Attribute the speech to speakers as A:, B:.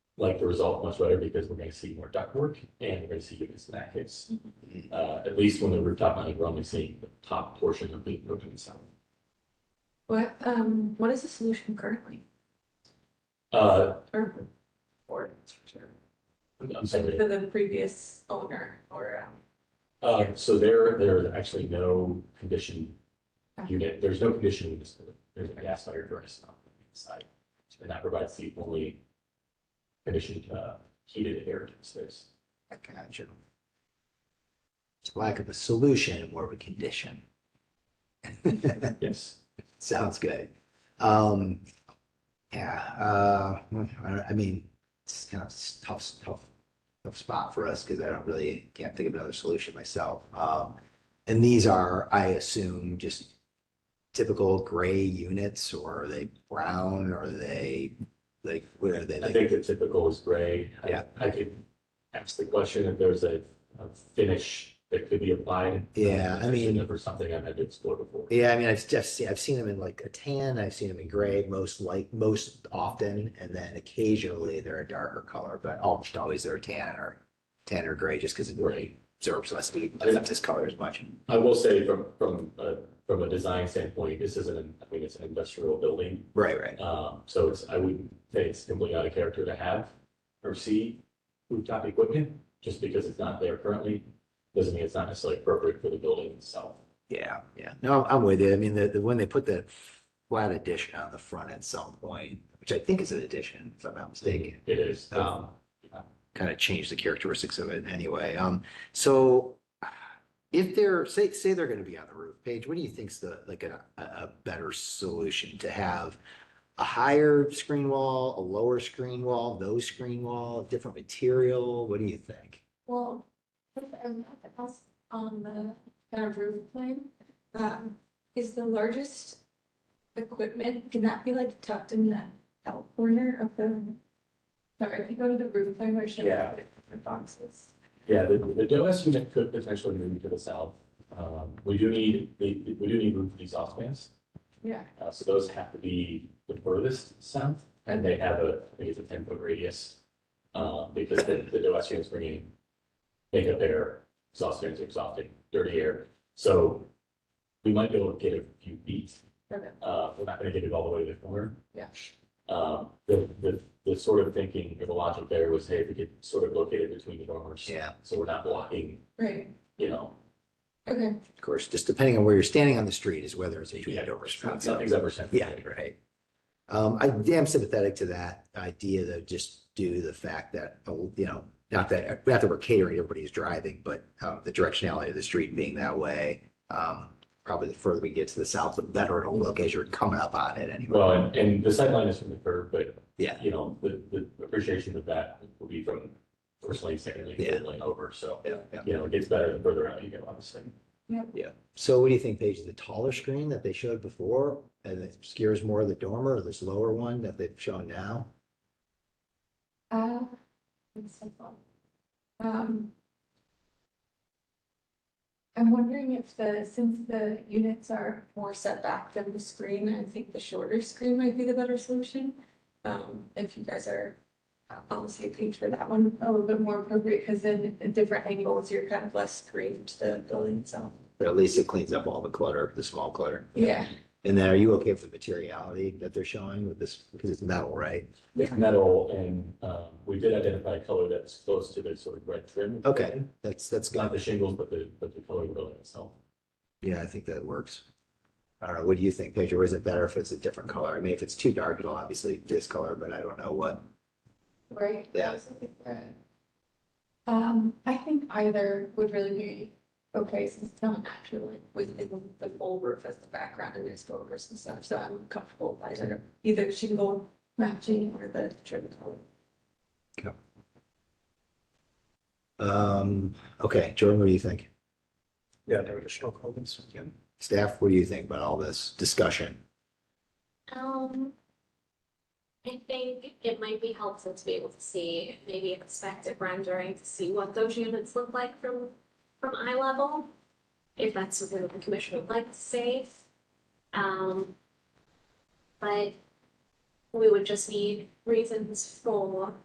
A: like the result much better because we're gonna see more duct work and we're gonna see units in that case. Uh, at least when the rooftop mounting, we're only seeing the top portion of the roof and sound.
B: What, um, what is the solution currently?
A: Uh,
B: Or, or, that's for sure.
A: I'm- I'm sorry.
B: for the previous owner or, um,
A: Uh, so there, there is actually no condition unit, there's no condition in this, building. there's a gas fire furnace on the inside. And that provides the only conditioned, uh, heated air to the space.
C: I got you. It's lack of a solution and more of a condition.
A: Yes.
C: Sounds good. Um, yeah, uh, I, don't- I mean, it's kind of tough, tough, tough spot for us because I don't really, can't think of another solution myself. Um, and these are, I assume, just typical gray units or are they brown or are they, like, where are they?
A: I
C: like-
A: think the typical is gray. I-
C: Yeah.
A: I could ask the question if there's a, a finish that could be applied.
C: Yeah, I mean-
A: Or something I've had to explore before.
C: Yeah, I mean, I've just seen, I've seen them in like a tan, I've seen them in gray most like most often, and then occasionally they're a darker color, but almost always they're tan or tan or gray, just because it really absorbs less heat, doesn't have this color as much.
A: I will say from, from, uh, from a design standpoint, this isn't, an- I mean, it's an industrial building.
C: Right, right.
A: Um, so it's, I wouldn't say it's simply out of character to have or see rooftop equipment, just because it's not there currently. Doesn't mean it's not necessarily appropriate for the building itself.
C: Yeah, yeah. No, I'm I'm with you. I mean, the, the, when they put that flat addition on the front at some point, which I think is an addition, if I'm not mistaken.
A: It is, um,
C: kind of change the characteristics of it anyway. Um, so if they're, say, say they're gonna be on the roof, Paige, what do you think's the, like a, a- a better solution to have? A higher screen wall, a lower screen wall, no screen wall, different material? What do you think?
B: well, um, else on the kind of roof plane, um, is the largest equipment, can that be like tucked in the out corner of the, sorry, if you go to the roof plane where it shows
A: Yeah.
B: the boxes?
A: yeah, the, the DOS unit could potentially move to the south. Um, we do need, we, we do need room for these off bands.
B: Yeah,
A: Uh, so those have to be the furthest south and they have a, I think it's a ten foot radius. Uh, because the, the DOS units bringing makeup air, exhaust fans are exhausting, dirty air. So we might be able to get a few feet.
B: Okay.
A: Uh, we're not gonna get it all the way to the corner.
B: Yeah.
A: Um, the, the, the sort of thinking or the logic there was, hey, if we could sort of locate it between the dormers.
C: Yeah,
A: So we're not blocking,
B: right,
A: you know,
B: okay,
C: of course, just depending on where you're standing on the street is whether it's a
A: Yeah.
C: unit or a screen.
A: nothing's ever sent.
C: Yeah, right. Um, I am sympathetic to that idea though, just due to the fact that, oh, you know, not that, not that we're catering, everybody's driving, but, um, the directionality of the street being that way. Um, probably the further we get to the south, the better it'll look as you're coming up on it anyway.
A: Well, and, and the sightline is from the curb, but.
C: Yeah.
A: You know, the, the appreciation of that will be from first lane, second lane, third lane over, so,
C: Yeah, yeah.
A: you know, it gets better the further out you go, obviously.
C: So what do you think, Paige? The taller screen that they showed before and it scares more of the dormer, or this lower one that they've shown now?
B: uh, that's so fun. Um. I'm wondering if the, since the units are more set back than the screen, I think the shorter screen might be the better solution. Um, if you guys are uh, on the same page for that one, a little bit more appropriate, because then at different angles, you're kind of less screened to the building itself.
C: But at least it cleans up all the clutter, the small clutter.
B: Yeah,
C: And then are you okay with the materiality that they're showing with this, because it's metal, right?
A: It's metal and, um, we did identify a color that's close to the sort of red trim.
C: Okay. That's, that's
A: It's not
C: good.
A: the shingles, but the, but the color of the building itself.
C: Yeah, I think that works. I don't know. What do you think, Pedro? Is it better if it's a different color? I mean, if it's too dark, it'll obviously discolor, but I don't know what.
B: right?
C: Yeah.
B: Um, I think either would really be okay, since it's not actually within the full roof as the background and there's photos and stuff, so I'm comfortable with either, either shingle matching or the trim color.
C: Um, okay, Jordan, what do you think?
D: Yeah, there were additional comments. Yeah.
C: Staff, what do you think about all this discussion?
E: Um, I think it might be helpful to be able to see, maybe expected rendering to see what those units look like from, from eye level. If that's something that the commission would like to see. Um, but we would just need reasons for